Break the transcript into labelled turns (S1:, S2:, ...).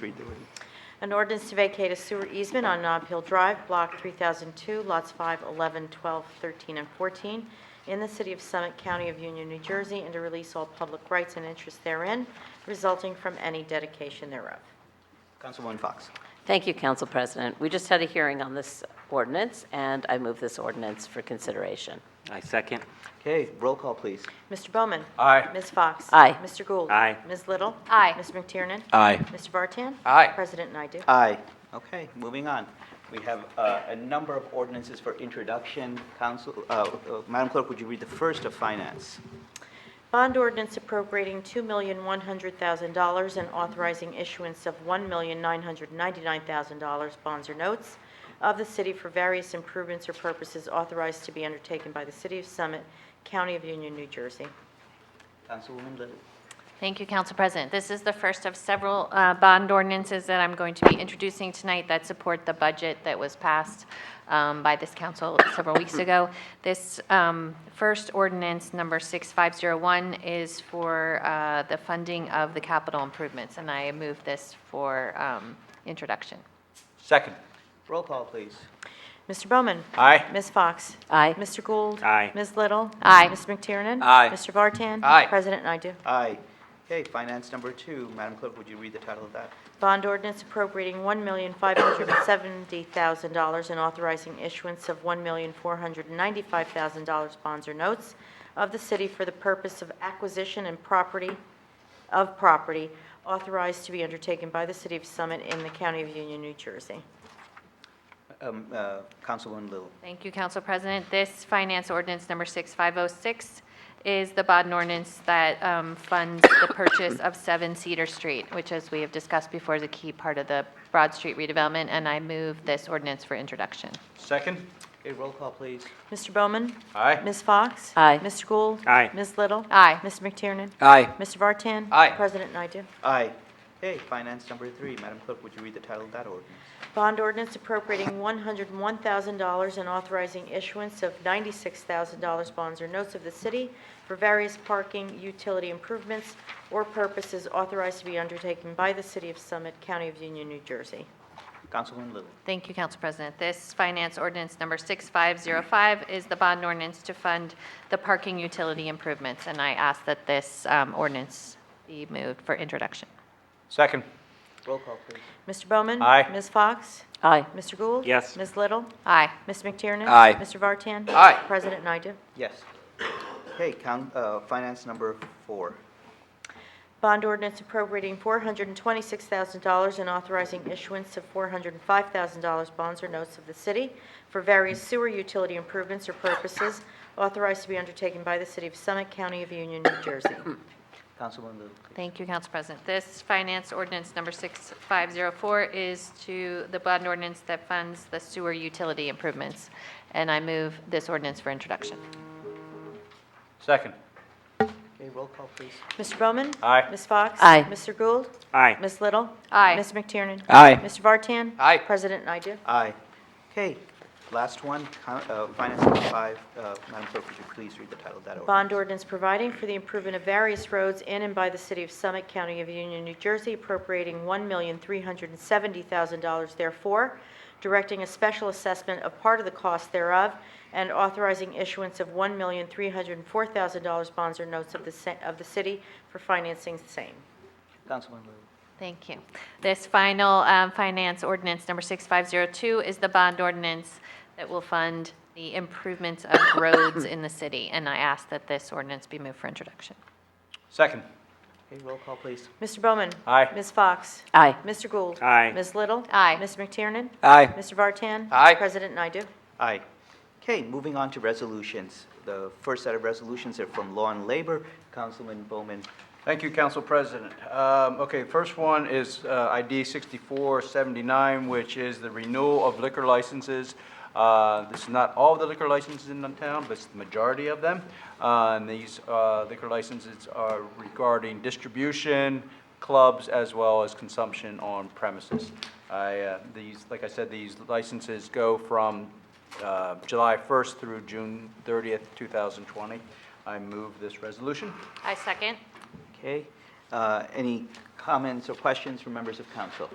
S1: Read the ordinance.
S2: An ordinance to vacate a sewer easement on Nob Hill Drive, Block 3002, lots 5, 11, 12, 13, and 14, in the city of Summit, County of Union, New Jersey, and to release all public rights and interests therein resulting from any dedication thereof.
S1: Councilwoman Fox.
S3: Thank you, Council President. We just had a hearing on this ordinance, and I move this ordinance for consideration.
S4: I second.
S1: Okay, roll call, please.
S2: Mr. Bowman?
S4: Aye.
S2: Ms. Fox?
S3: Aye.
S2: Mr. Gould?
S4: Aye.
S2: Ms. Little?
S5: Aye.
S2: Ms. McTiernan?
S4: Aye.
S2: Mr. Bartan?
S4: Aye.
S2: President Naidoo?
S1: Aye. Okay, moving on. We have uh, a number of ordinances for introduction. Council, uh, uh, Madam Clerk, would you read the first of finance?
S2: Bond ordinance appropriating $2,100,000 and authorizing issuance of $1,999,000 bonds or notes of the city for various improvements or purposes authorized to be undertaken by the City of Summit, County of Union, New Jersey.
S1: Councilwoman Little.
S5: Thank you, Council President. This is the first of several uh, bond ordinances that I'm going to be introducing tonight that support the budget that was passed um, by this council several weeks ago. This um, first ordinance, number 6501, is for uh, the funding of the capital improvements, and I move this for um, introduction.
S4: Second.
S1: Roll call, please.
S2: Mr. Bowman?
S4: Aye.
S2: Ms. Fox?
S3: Aye.
S2: Mr. Gould?
S4: Aye.
S2: Ms. Little?
S5: Aye.
S2: Ms. McTiernan?
S4: Aye.
S2: Mr. Vartan?
S4: Aye.
S2: President Naidoo?
S1: Aye. Okay, finance number two. Madam Clerk, would you read the title of that?
S2: Bond ordinance appropriating $1,570,000 and authorizing issuance of $1,495,000 bonds or notes of the city for the purpose of acquisition and property, of property authorized to be undertaken by the city of Summit in the county of Union, New Jersey.
S1: Um, uh, Councilwoman Little.
S5: Thank you, Council President. This finance ordinance number 6506 is the bond ordinance that um, funds the purchase of 7 Cedar Street, which, as we have discussed before, is a key part of the Broad Street redevelopment, and I move this ordinance for introduction.
S4: Second.
S1: Okay, roll call, please.
S2: Mr. Bowman?
S4: Aye.
S2: Ms. Fox?
S3: Aye.
S2: Mr. Gould?
S4: Aye.
S2: Ms. Little?
S5: Aye.
S2: Mr. McTiernan?
S4: Aye.
S2: Mr. Vartan?
S4: Aye.
S2: President Naidoo?
S1: Aye. Okay, finance number three. Madam Clerk, would you read the title of that ordinance?
S2: Bond ordinance appropriating $101,000 and authorizing issuance of $96,000 bonds or notes of the city for various parking, utility improvements, or purposes authorized to be undertaken by the city of Summit, County of Union, New Jersey.
S1: Councilwoman Little.
S5: Thank you, Council President. This finance ordinance number 6505 is the bond ordinance to fund the parking utility improvements, and I ask that this um, ordinance be moved for introduction.
S4: Second.
S1: Roll call, please.
S2: Mr. Bowman?
S4: Aye.
S2: Ms. Fox?
S3: Aye.
S2: Mr. Gould?
S4: Yes.
S2: Ms. Little?
S5: Aye.
S2: Ms. McTiernan?
S4: Aye.
S2: Mr. Vartan?
S4: Aye.
S2: President Naidoo?
S1: Yes. Okay, count, uh, finance number four.
S2: Bond ordinance appropriating $426,000 and authorizing issuance of $405,000 bonds or notes of the city for various sewer utility improvements or purposes authorized to be undertaken by the city of Summit, County of Union, New Jersey.
S1: Councilwoman Little.
S5: Thank you, Council President. This finance ordinance number 6504 is to the bond ordinance that funds the sewer utility improvements, and I move this ordinance for introduction.
S4: Second.
S1: Okay, roll call, please.
S2: Mr. Bowman?
S4: Aye.
S2: Ms. Fox?
S3: Aye.
S2: Mr. Gould?
S4: Aye.
S2: Ms. Little?
S5: Aye.
S2: Ms. McTiernan?
S4: Aye.
S2: Mr. Vartan?
S4: Aye.
S2: President Naidoo?
S1: Aye. Okay, last one, coun- uh, finance number five. Uh, Madam Clerk, would you please read the title of that ordinance?
S2: Bond ordinance providing for the improvement of various roads in and by the city of Summit, County of Union, New Jersey, appropriating $1,370,000 therefore, directing a special assessment of part of the cost thereof, and authorizing issuance of $1,304,000 bonds or notes of the, sa- of the city for financing the same.
S1: Councilwoman Little.
S5: Thank you. This final um, finance ordinance number 6502 is the bond ordinance that will fund the improvements of roads in the city, and I ask that this ordinance be moved for introduction.
S4: Second.
S1: Okay, roll call, please.
S2: Mr. Bowman?
S4: Aye.
S2: Ms. Fox?
S3: Aye.
S2: Mr. Gould?
S4: Aye.
S2: Ms. Little?
S5: Aye.
S2: Ms. McTiernan?
S4: Aye.
S2: Mr. Vartan?
S4: Aye.
S2: President Naidoo?
S1: Aye. Okay, moving on to resolutions. The first set of resolutions are from Law and Labor. Councilman Bowman.
S6: Thank you, Council President. Um, Okay, first one is uh, ID 6479, which is the renewal of liquor licenses. Uh, This is not all the liquor licenses in the town, but it's the majority of them. Uh, And these uh, liquor licenses are regarding distribution, clubs, as well as consumption on premises. I, uh, These, like I said, these licenses go from uh, July 1st through June 30th, 2020. I move this resolution.
S5: I second.
S1: Okay, uh, any co- comments or questions from members of council?